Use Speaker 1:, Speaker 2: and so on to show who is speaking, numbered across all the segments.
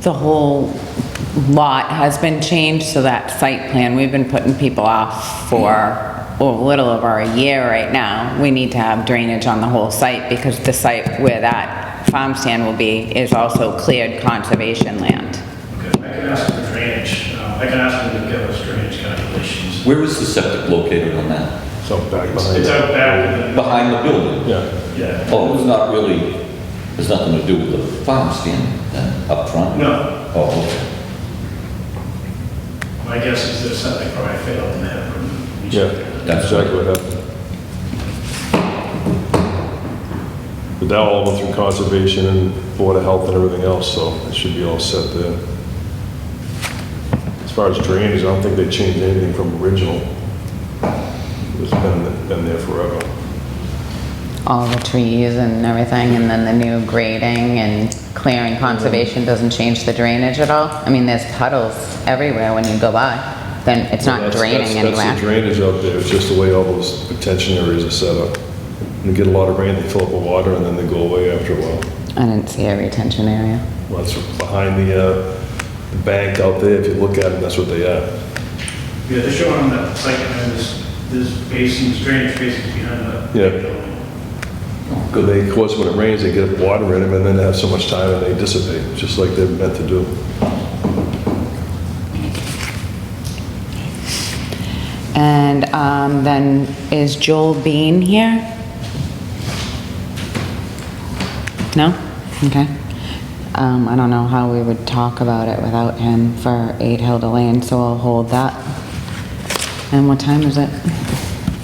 Speaker 1: the whole lot has been changed, so that site plan, we've been putting people off for a little over a year right now. We need to have drainage on the whole site because the site where that farm stand will be is also cleared conservation land.
Speaker 2: Okay, I can ask for drainage, uh, I can ask them to give us drainage calculations.
Speaker 3: Where is the septic located on that?
Speaker 4: So back
Speaker 2: It's
Speaker 4: behind.
Speaker 2: out back, with
Speaker 3: Behind the building?
Speaker 4: Yeah,
Speaker 2: the- yeah,
Speaker 3: Oh, it's not really, there's nothing to do with the farm stand then, up front?
Speaker 2: No.
Speaker 3: Oh, okay.
Speaker 2: my guess is there's something probably failed in that room. We
Speaker 4: yeah,
Speaker 2: should-
Speaker 3: That's-
Speaker 4: that's exactly what happened. But that all went through conservation and Board of Health and everything else, so it should be all set there. As far as drainage, I don't think they changed anything from original. It's been, been there forever.
Speaker 1: All the trees and everything, and then the new grading and clearing conservation doesn't change the drainage at all? I mean, there's puddles everywhere when you go by, then it's not
Speaker 4: That's-
Speaker 1: draining
Speaker 4: that's- That's the
Speaker 1: anywhere.
Speaker 4: drainage up there, it's just the way all those retention areas are set up. You get a lot of rain, they fill up with water, and then they go away after a while.
Speaker 1: I didn't see a retention area.
Speaker 4: Well, that's behind the, uh, the bank out there, if you look at them, that's what they are.
Speaker 2: Yeah, they're showing on that site, plan, there's, there's basins, drainage basins behind the.
Speaker 4: Yeah.
Speaker 2: building.
Speaker 4: Because they, of course, when it rains, they get water in them, and then they have so much time, and they dissipate, just like they're meant to do.
Speaker 1: And um, then, is Joel Bean here? No? Okay. Um, I don't know how we would talk about it without him for 8 Hilda Lane, so I'll hold that. And what time is it?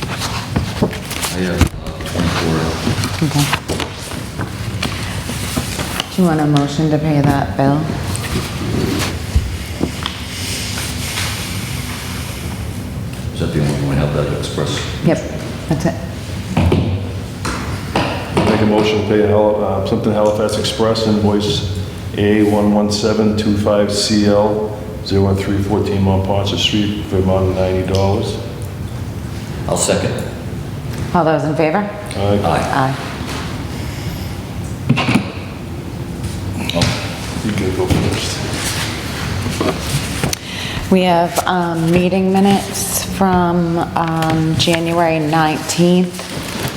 Speaker 3: I have uh,
Speaker 1: Okay. Do you want a motion to pay that bill?
Speaker 3: twenty-four, is that the only one we have that express?
Speaker 1: Yep, that's it.
Speaker 4: Make a motion to pay Hal- uh, Plimpton Halifax Express invoice A11725CL01314 Mont Ponce Street, Vermont, $90.
Speaker 3: I'll second.
Speaker 1: All those in favor?
Speaker 4: Aye.
Speaker 3: Aye.
Speaker 1: Aye.
Speaker 4: You can go first.
Speaker 1: We have um, meeting minutes from um, January 19th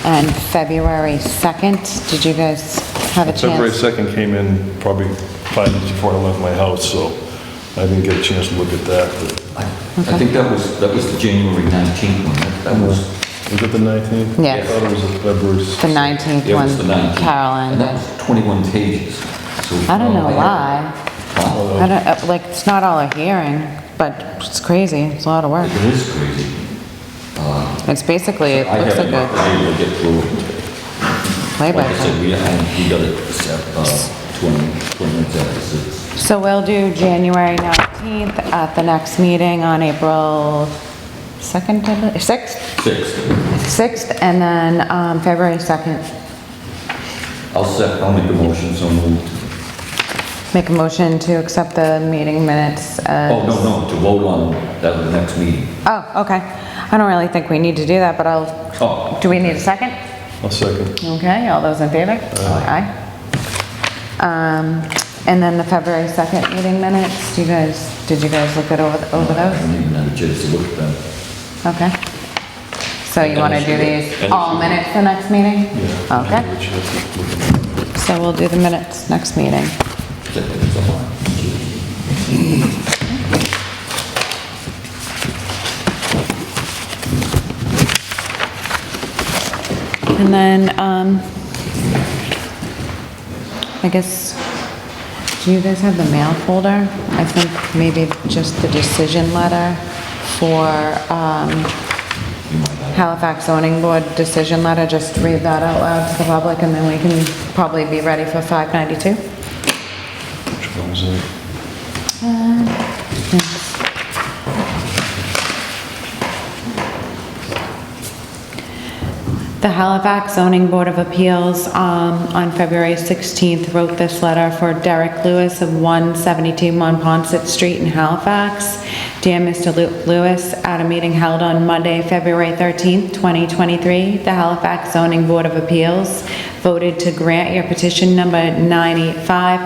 Speaker 1: and February 2nd. Did you guys have a
Speaker 4: February
Speaker 1: chance?
Speaker 4: 2nd came in probably five minutes before I left my house, so I didn't get a chance to look at that, but
Speaker 3: I I think that was, that was the January 19th one, that- that was,
Speaker 4: Was it the 19th?
Speaker 1: Yeah.
Speaker 4: I thought it was February
Speaker 1: The 19th
Speaker 3: yeah, it was the
Speaker 1: one,
Speaker 3: 19th. And
Speaker 1: Carolyn
Speaker 3: that
Speaker 1: did.
Speaker 3: was 21 pages. So,
Speaker 1: I don't know
Speaker 3: uh,
Speaker 1: why.
Speaker 3: Wow,
Speaker 1: I don't, uh, like, it's not all a hearing, but it's crazy. It's a lot of work.
Speaker 3: It is crazy.
Speaker 1: It's basically, it
Speaker 3: I
Speaker 1: looks like a
Speaker 3: haven't been able to get through it. Like I said,
Speaker 1: playbook.
Speaker 3: we, I- we got it uh, 20, 20 minutes after six.
Speaker 1: So we'll do January 19th at the next meeting on April 2nd, I believe- 6th?
Speaker 3: Six.
Speaker 1: 6th, and then um, February 2nd.
Speaker 3: I'll sec, I'll make the motion, so moved.
Speaker 1: Make a motion to accept the meeting minutes. uh,
Speaker 3: Oh, no, no, to vote on that at the next meeting.
Speaker 1: Oh, okay. I don't really think we need to do that, but I'll,
Speaker 3: Oh,
Speaker 1: do we need a second?
Speaker 4: I'll second.
Speaker 1: Okay, all those in favor? Aye. Um, And then the February 2nd meeting minutes, do you guys, did you guys look it over over
Speaker 3: I
Speaker 1: those?
Speaker 3: haven't even had a chance to look at them.
Speaker 1: Okay. So you want to do these all minutes the next meeting?
Speaker 4: Yeah.
Speaker 1: Okay, so we'll do the minutes next meeting.
Speaker 3: Check it, it's online.
Speaker 1: And then, um, I guess, do you guys have the mail folder? I think maybe just the decision letter for, um, Halifax zoning board decision letter, just read that out loud to the public, and then we can probably be ready for 592.
Speaker 4: Which one was it?
Speaker 1: The Halifax Zoning Board of Appeals um, on February 16th wrote this letter for Derek Lewis of 172 Monpont Street in Halifax. Dear Mr. Lew- Lewis, at a meeting held on Monday, February 13th, 2023, the Halifax Zoning Board of Appeals voted to grant your petition number 985